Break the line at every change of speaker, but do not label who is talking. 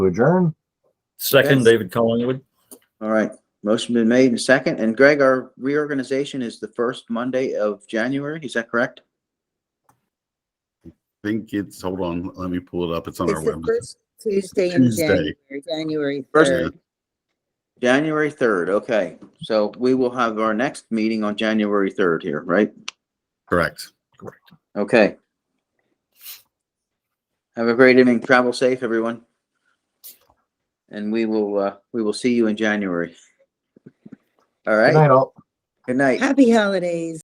to adjourn.
Second,
Yes.
David Collingwood.
All right, motion been made and second. And Greg, our reorganization is the first Monday of January, is that correct?
think it's, hold on, let me pull it up. It's on our
It's the
website.
first Tuesday in
Tuesday.
January, January
First-
third.
January third, okay. So we will have our next meeting on January third here, right?
Correct.
Okay. Have a great evening. Travel safe, everyone. And we will, uh, we will see you in January. All
Good
right,
night, all.
good night.
Happy holidays.